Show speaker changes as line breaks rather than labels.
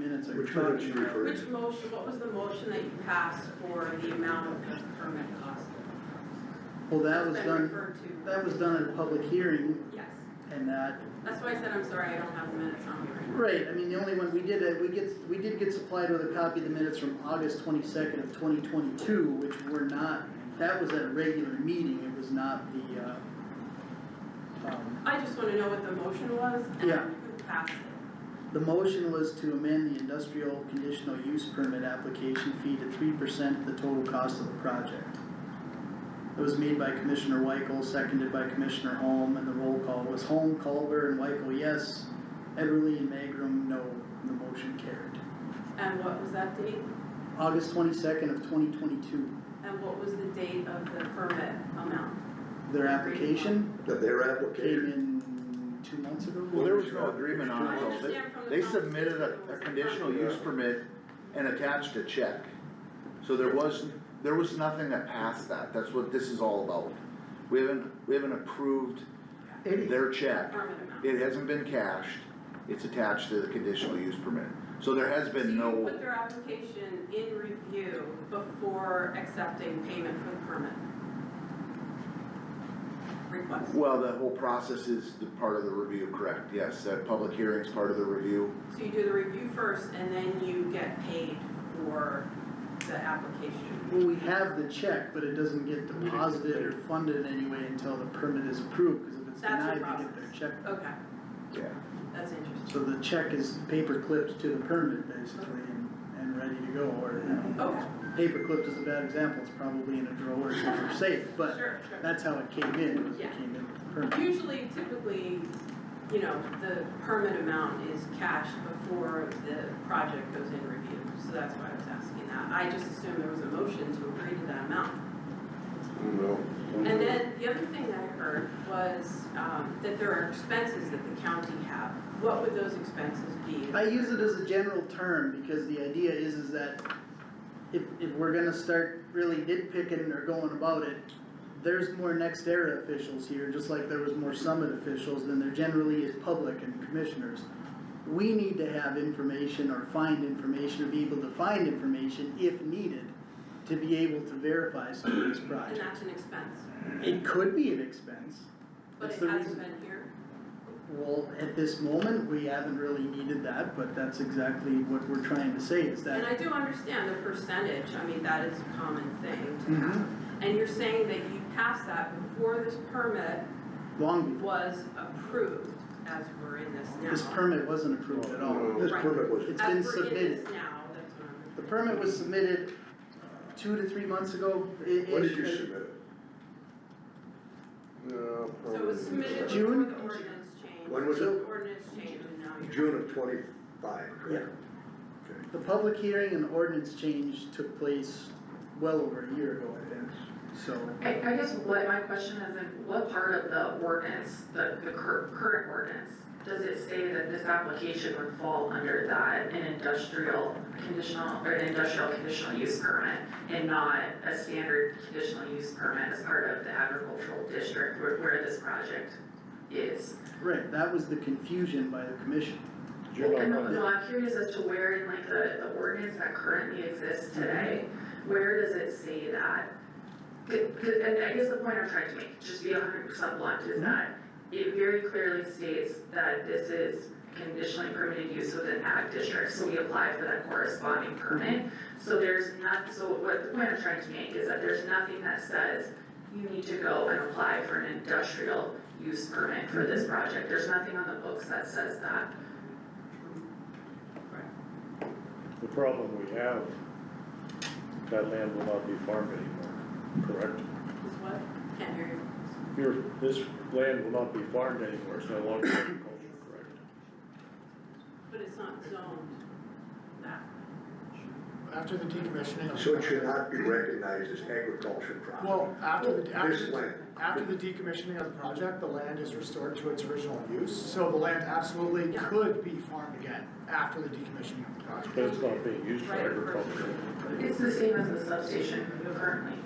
permits are
Which one
trucking
did you
around.
refer
Which motion, what was the motion that you passed for the amount of the permit cost?
Well, that was
That's been
done,
referred to.
that was done at a public hearing
Yes,
and that,
that's why I said, I'm sorry, I don't have the minutes on me right now.
right, I mean, the only one, we did, uh, we get, we did get supplied with a copy of the minutes from August twenty-second of twenty twenty-two, which were not, that was at a regular meeting, it was not the, uh, um,
I just wanna know what the motion was and
Yeah.
who passed it.
The motion was to amend the industrial conditional use permit application fee to three percent of the total cost of the project. It was made by Commissioner Weichel, seconded by Commissioner Holm, and the roll call was Holm, Culver, and Weichel, yes. Everly and Magrum, no. The motion carried.
And what was that date?
August twenty-second of twenty twenty-two,
And what was the date of the permit amount?
their application
That their
came
application,
in two months ago.
Well, there was no agreement
I
on it, though.
understand from the
They they submitted
conversation it
a, a
was
conditional
not-
use permit and attached a check. So there was, there was nothing that passed that, that's what this is all about. We haven't, we haven't approved
Any-
their check,
Permit amount.
it hasn't been cashed, it's attached to the conditional use permit. So there has
So
been
you
no,
put their application in review before accepting payment for the permit? Request.
well, the whole process is the part of the review, correct, yes, that public hearing's part of the review.
So you do the review first and then you get paid for the application?
Well, we have the check, but it doesn't get deposited or funded in any way until the permit is approved, cause if it's
That's the
denied, they get their
process.
check.
Okay,
Yeah.
that's interesting.
So the check is paper clipped to the permit basically and, and ready to go, or, you know,
Okay,
paper clipped is a bad example, it's probably in a drawer somewhere safe, but
sure, sure.
that's how it came in, was it
Yeah.
came in with the permit.
Usually, typically, you know, the permit amount is cashed before the project goes in review, so that's why I was asking that. I just assumed there was a motion to agree to that amount.
no.
And then the other thing that I heard was, um, that there are expenses that the county have. What would those expenses be?
I use it as a general term, because the idea is, is that if, if we're gonna start really nitpicking or going about it, there's more next era officials here, just like there was more summit officials than there generally is public and commissioners. We need to have information or find information or be able to find information if needed to be able to verify some of these
And
projects.
that's an expense,
It could be an expense.
but
That's
it
the
hasn't
reason.
been here.
Well, at this moment, we haven't really needed that, but that's exactly what we're trying to say is
And
that,
I do understand the percentage, I mean, that is a common thing to
Mhm.
have. And you're saying that you passed that before this permit
long before,
was approved as we're in this now.
this permit wasn't approved at all.
um, This permit was,
It's been
As we're in
submitted.
this now, that's what I'm.
The permit was submitted uh, two to three months ago. i-
when did you
ish,
submit it? No,
So it was
probably-
submitted before
June?
the ordinance change.
When was
The
it?
Ordinance change and now you're.
June of twenty-five, correct? Okay.
The public hearing and ordinance change took place well over a year ago, I think, so.
I, I guess what my question is, in what part of the ordinance, the, the cur- current ordinance, does it say that this application would fall under that, an industrial conditional, or an industrial conditional use permit? And not a standard conditional use permit as part of the agricultural district where, where this project is?
Right, that was the confusion by the commission.
And no, no, I'm curious as to where in like the, the ordinance that currently exists today, where does it say that? C- c- and I guess the point I'm trying to make, just be hundred percent blunt, is that it very clearly states that this is conditionally permitted use within ag district, so we apply for that corresponding permit. So there's not, so what the point I'm trying to make is that there's nothing that says you need to go and apply for an industrial use permit for this project, there's nothing on the books that says that.
The problem we have, that land will not be farmed anymore, correct?
Is what? Can't hear you.
Your, this land will not be farmed anymore, it's no longer agriculture, correct?
But it's not zoned that.
After the decommissioning.
So it should not be recognized as agriculture property.
Well, after the, after
This
the,
land.
after the decommissioning of the project, the land is restored to its original use, so the land absolutely could be farmed again after the decommissioning of the
But
project.
it's not being used for agriculture.
It's the same as the substation currently.